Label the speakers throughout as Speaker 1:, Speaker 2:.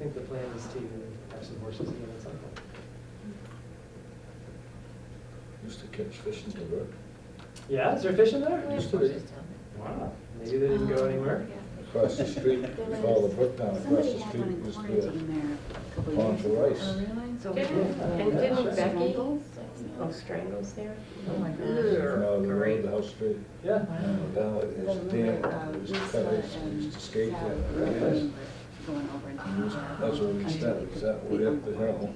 Speaker 1: I think the plan is to have some horses again at some point.
Speaker 2: Used to catch fish in the brook,
Speaker 1: Yeah, is there fish in there?
Speaker 3: We have
Speaker 2: Used to be.
Speaker 3: horses down Oh,
Speaker 1: Wow, maybe they didn't go anywhere.
Speaker 2: across the street, you follow the brook down across
Speaker 4: Somebody
Speaker 2: the
Speaker 4: had
Speaker 2: street,
Speaker 4: one in
Speaker 2: used to be a
Speaker 4: quarantine there a couple
Speaker 2: pond
Speaker 4: years ago.
Speaker 2: for
Speaker 3: there. Oh,
Speaker 2: rice.
Speaker 3: really? So-
Speaker 1: Yeah.
Speaker 5: Didn't, and
Speaker 6: uh,
Speaker 5: didn't Becky,
Speaker 3: Strangles?
Speaker 5: oh, strangles there?
Speaker 3: Oh, my
Speaker 2: From out
Speaker 3: gosh.
Speaker 2: of the road,
Speaker 5: Great.
Speaker 2: the house street,
Speaker 1: Yeah.
Speaker 2: and down, it
Speaker 4: The
Speaker 2: was
Speaker 4: little, uh,
Speaker 2: damn, it was
Speaker 4: Lisa
Speaker 2: cut, it
Speaker 4: and
Speaker 2: used to skate
Speaker 4: Sal
Speaker 2: there.
Speaker 4: were
Speaker 2: It was-
Speaker 4: Going over and
Speaker 2: it was- That's where we started, is that way up the hill,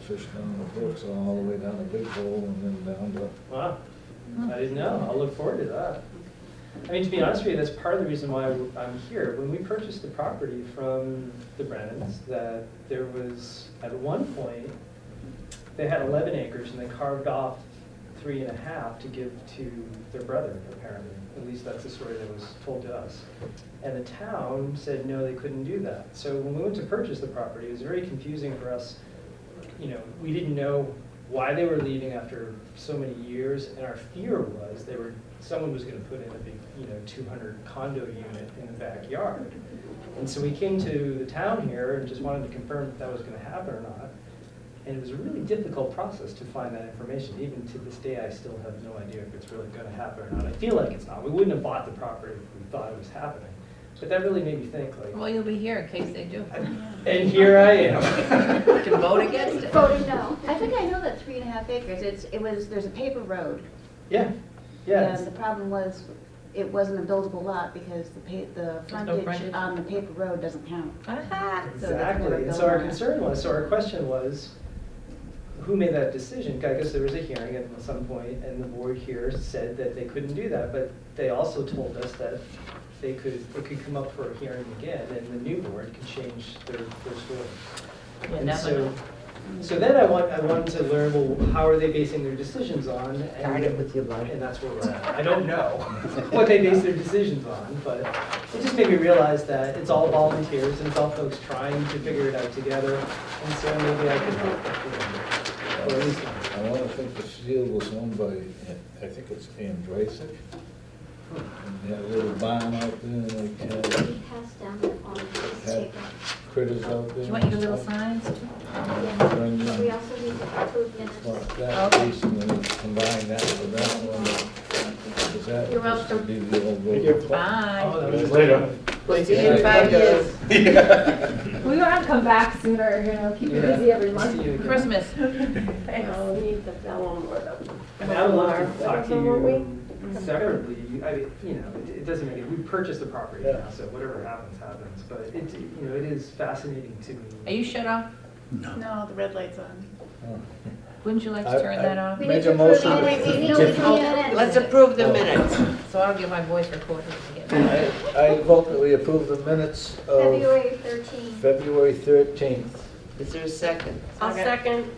Speaker 2: fish down the brooks, all the way down the big hole, and then down to,
Speaker 1: Wow, I didn't know. I'll look forward to that. I mean, to be honest with you, that's part of the reason why I'm here. When we purchased the property from the Brennans, that there was, at one point, they had 11 acres and they carved off three and a half to give to their brother, apparently. At least that's the story that was told to us. And the town said, no, they couldn't do that. So when we went to purchase the property, it was very confusing for us you know, we didn't know why they were leaving after so many years, and our fear was they were, someone was gonna put in a big, you know, two hundred condo unit in the backyard. And so we came to the town here and just wanted to confirm if that was gonna happen or not. And it was a really difficult process to find that information, even to this day, I still have no idea if it's really gonna happen or not. I feel like it's not, we wouldn't have bought the property if we thought it was happening, but that really made me think,
Speaker 3: Well,
Speaker 1: like,
Speaker 3: you'll be here in case they do.
Speaker 1: and here I am.
Speaker 3: You can vote against it.
Speaker 4: Voted no. I think I know that three and a half acres, it's, it was, there's a paper road.
Speaker 1: Yeah, yeah. it's-
Speaker 4: And the problem was, it wasn't a buildable lot because the pa, the
Speaker 3: There's no
Speaker 4: frontage
Speaker 3: frontage.
Speaker 4: on the paper road doesn't count.
Speaker 3: Aha, so that's
Speaker 4: what
Speaker 1: Exactly,
Speaker 4: I'm
Speaker 1: and so our
Speaker 4: going on.
Speaker 1: concern was, so our question was, who made that decision? I guess there was a hearing at some point, and the board here said that they couldn't do that, but they also told us that they could, it could come up for a hearing again, and the new board could change their, their story.
Speaker 3: You
Speaker 1: And
Speaker 3: never
Speaker 1: so,
Speaker 3: know.
Speaker 1: so then I want, I wanted to learn, well, how are they basing their decisions on? and-
Speaker 5: Started with your life.
Speaker 1: And that's where we're at. I don't know what they base their decisions on, but it just made me realize that it's all volunteers and it's all folks trying to figure it out together. And so maybe I could help. you know, Or at least,
Speaker 2: I wanna think the field was owned by, I think it's Andrasic. And they had a little barn out there, and they
Speaker 4: We
Speaker 2: had
Speaker 4: passed down the on
Speaker 2: had critters out there.
Speaker 3: Do you want your
Speaker 2: and
Speaker 3: little
Speaker 2: stuff.
Speaker 3: signs too?
Speaker 2: Bring them.
Speaker 4: We also need to approve
Speaker 2: Well,
Speaker 4: minutes.
Speaker 2: that
Speaker 3: Okay.
Speaker 2: piece and then combine that with that one, is that
Speaker 3: You're
Speaker 2: supposed to
Speaker 3: welcome.
Speaker 2: be the old
Speaker 7: Thank
Speaker 2: road?
Speaker 7: you.
Speaker 3: Bye.
Speaker 1: oh, that was-
Speaker 7: Later.
Speaker 5: See you in five years.
Speaker 6: We want to come back sooner, you know, keep you
Speaker 1: Yeah.
Speaker 6: busy every
Speaker 1: See
Speaker 6: month.
Speaker 1: you again.
Speaker 3: Christmas.
Speaker 5: Oh, we need the vellum or the.
Speaker 1: I mean, I would love to
Speaker 5: Or
Speaker 1: talk to
Speaker 5: vellum, won't we?
Speaker 1: you separately, I mean, you know, it- it doesn't make, it. we purchased the property now, so whatever happens, happens, but it, you know, it is fascinating to
Speaker 3: Are
Speaker 1: me.
Speaker 3: you shut off?
Speaker 8: No, the red light's on.
Speaker 3: Wouldn't you like
Speaker 2: I-
Speaker 3: to turn
Speaker 2: I-
Speaker 3: that off?
Speaker 4: We
Speaker 2: Make
Speaker 4: need to
Speaker 2: a
Speaker 4: approve
Speaker 2: motion.
Speaker 4: minutes. We need to
Speaker 2: Just-
Speaker 4: approve minutes.
Speaker 5: Let's approve the minutes.
Speaker 3: So I'll get my voice recorded again.
Speaker 2: I I vote that we approve the minutes of
Speaker 4: February thirteenth.
Speaker 2: February 13th.
Speaker 5: Is there a second?
Speaker 3: I'll second.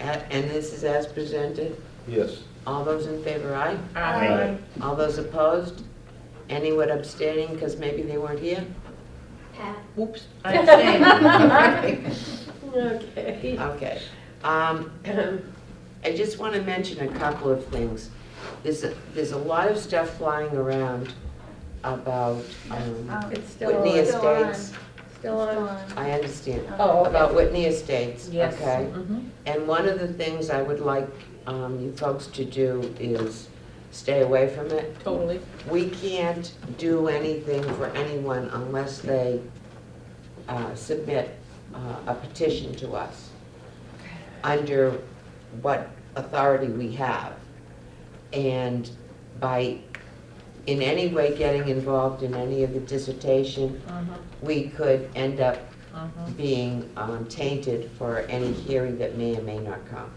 Speaker 5: A- And this is as presented.
Speaker 2: Yes.
Speaker 5: All those in favor, aye?
Speaker 3: Aye.
Speaker 5: All those opposed? Anyone abstaining because maybe they weren't here?
Speaker 4: Pat.
Speaker 3: Oops, I abstained.
Speaker 5: Okay. Okay. Um, I just want to mention a couple of things. There's, a- there's a lot of stuff flying around about
Speaker 3: Uh,
Speaker 5: um,
Speaker 8: Um,
Speaker 9: It's still,
Speaker 5: Whitney
Speaker 4: still on.
Speaker 5: Estates.
Speaker 9: still on.
Speaker 5: I understand.
Speaker 3: Oh, okay.
Speaker 5: About Whitney Estates,
Speaker 3: Yes.
Speaker 5: okay?
Speaker 3: Mhm.
Speaker 5: And one of the things I would like um, you folks to do is stay away from it.
Speaker 3: Totally.
Speaker 5: We can't do anything for anyone unless they uh, submit uh, a petition to us under what authority we have. And by in any way getting involved in any of the dissertation,
Speaker 3: Mhm,
Speaker 5: we could end up
Speaker 3: mhm.
Speaker 5: being um, tainted for any hearing that may or may not come.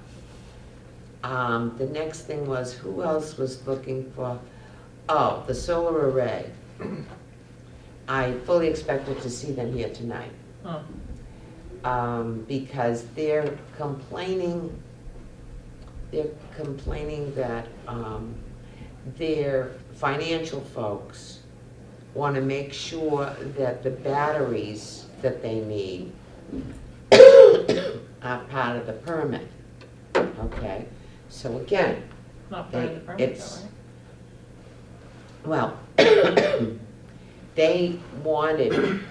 Speaker 5: Um, The next thing was, who else was looking for, oh, the solar array. I fully expected to see them here tonight.
Speaker 3: Hmm.
Speaker 5: Um, Because they're complaining, they're complaining that um, their financial folks want to make sure that the batteries that they need are part of the permit, okay? So again,
Speaker 3: Not part of the permit,
Speaker 5: It's-
Speaker 3: though, right?
Speaker 5: well, they wanted